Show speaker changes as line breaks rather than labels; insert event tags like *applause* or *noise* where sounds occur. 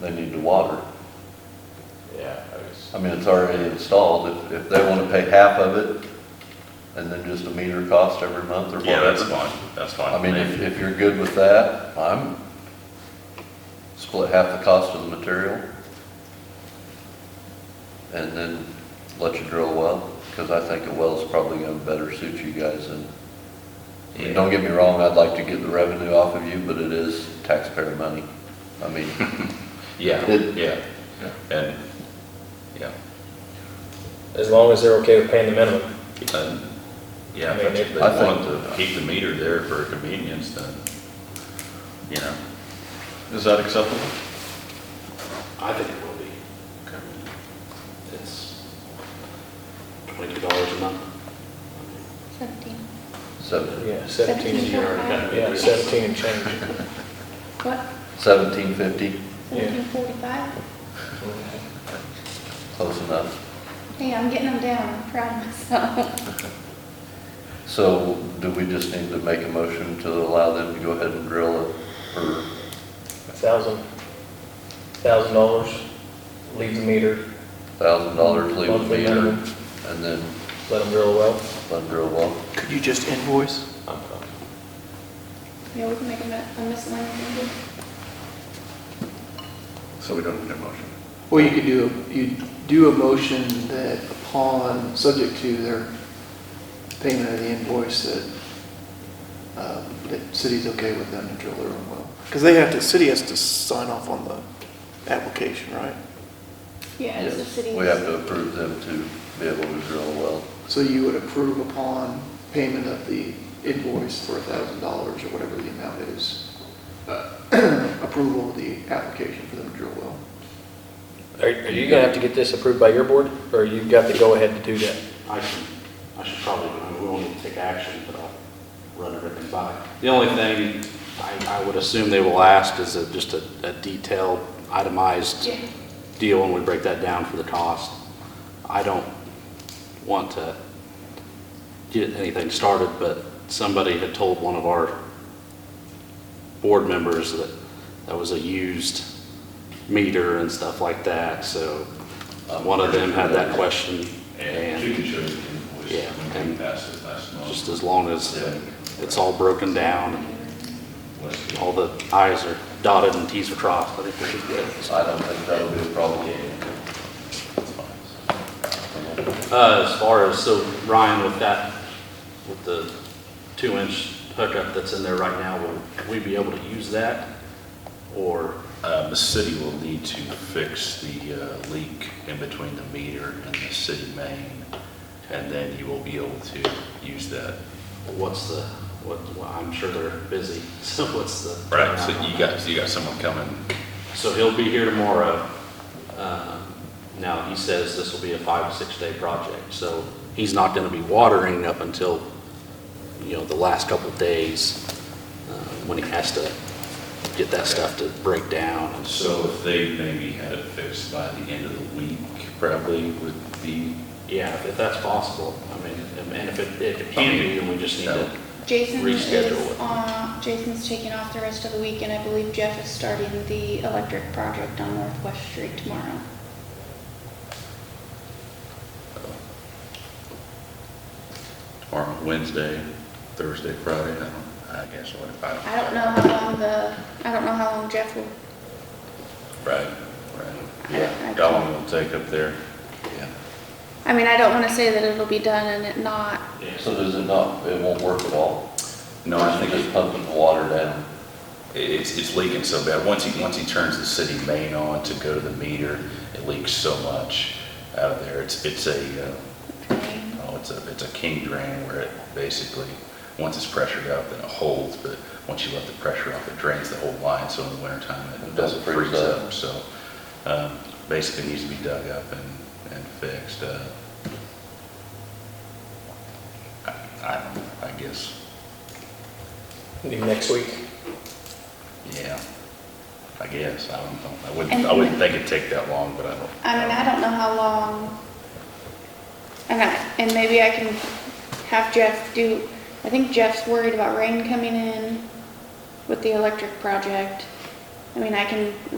they need to water.
Yeah, I was,
I mean, it's already installed, if, if they wanna pay half of it, and then just a meter cost every month or
Yeah, that's
whatever.
fine, that's fine.
I mean, if, if you're good with that, I'm, split half the cost of the material. And then let you drill a well, cause I think a well's probably gonna better suit you guys than I mean, Don't get me wrong, I'd like to get the revenue off of you, but it is taxpayer money. I
*laughs*
mean,
Yeah,
It-
yeah, and, yeah,
as long as they're okay with paying the minimum.
and, yeah,
I mean,
if
it-
they
I think-
want to keep the meter there for convenience, then, you know,
is that acceptable?
I think it will be. It's twenty-two dollars a month.
Seventeen.
seven-
Yeah, seventeen,
You already got me.
yeah, seventeen and change.
What,
seventeen fifty,
Yeah.
seventeen forty-five?
close enough.
Hey, I'm getting them down, I'm proud
*laughs*
of myself.
So do we just need to make a motion to allow them to go ahead and drill it? Or,
Thousand, thousand dollars, leave the meter,
thousand dollars, leave a
Monthly
meter,
minimum.
and then
let them drill a well.
let them drill well?
Could you just invoice?
I'm fine.
Yeah, we can make a mi- a miscellaneous meeting.
So we don't need a motion.
Well, you could do, you do a motion that upon, subject to their payment of the invoice, that, um, that city's okay with them to drill their own well. Because they have to, city has to sign off on the application, right?
Yeah, it's the
Yes,
city.
We have to approve them to be able to drill a well.
So you would approve upon payment of the invoice for a thousand dollars or whatever the amount is, uh, *clears throat* approval of the application for them to drill well.
Are, are you gonna have to get this approved by your board, or you've got the go-ahead to do that?
I should, I should probably, I mean, we won't need to take action, but I'll run everything by. The only thing I, I would assume they will ask is a- just a a detailed itemized
Yeah.
deal when we break that down for the cost. I don't want to get anything started, but somebody had told one of our board members that that was a used meter and stuff like that, so uh, one of them had that question.
and you can show the invoice,
Yeah,
and we
and-
passed it last month.
Just as long as it's all broken down, and
What's the-
all the i's are dotted and t's are crossed, I think we should get it.
I don't think that'll be a problem.
Uh, as far as, so Ryan, with that, with the two-inch hookup that's in there right now, will we be able to use that? Or,
Uh, the city will need to fix the uh, leak in between the meter and the city main, and then you will be able to use that.
what's the, what, well, I'm sure they're busy, *laughs* so what's the?
Right, so you got, so you got someone coming,
So he'll be here tomorrow. Um, Now, he says this will be a five, to six-day project, so he's not going to be watering up until, you know, the last couple of days uh, when he has to get that stuff to break down. and So,
so if they maybe had it fixed by the end of the week, probably would be,
yeah, if that's possible, I mean, and if it, if it can be, then we just need to,
Jason is,
Reschedule it.
uh, Jason's taking off the rest of the week, and I believe Jeff is starting the electric project on Northwest Street tomorrow.
tomorrow, Wednesday, Thursday, Friday, I don't, I guess, what if I don't.
I don't know how long the, I don't know how long Jeff will,
Right,
I-
right.
I
How
don't,
long it'll take up there? Yeah.
I mean, I don't wanna say that it'll be done and it not,
So does it not, it won't work at all?
No, I think
Just pumping the water down.
It's, it's leaking so bad. Once he, once he turns the city main on to go to the meter, it leaks so much out of there. It's, it's a, uh, oh, it's a, it's a king drain where it basically, once it's pressured up, then it holds, but once you let the pressure off, it drains the whole line, so in the wintertime, it doesn't freeze up. So, um, basically needs to be dug up and, and fixed. Uh, I, I don't, know, I guess,
Maybe next week?
Yeah, I guess, I don't know, I wouldn't,
And-
I wouldn't think it'd take that long, but I don't.
I mean, I don't know how long, and I, and maybe I can have Jeff do, I think Jeff's worried about rain coming in with the electric project. I mean, I can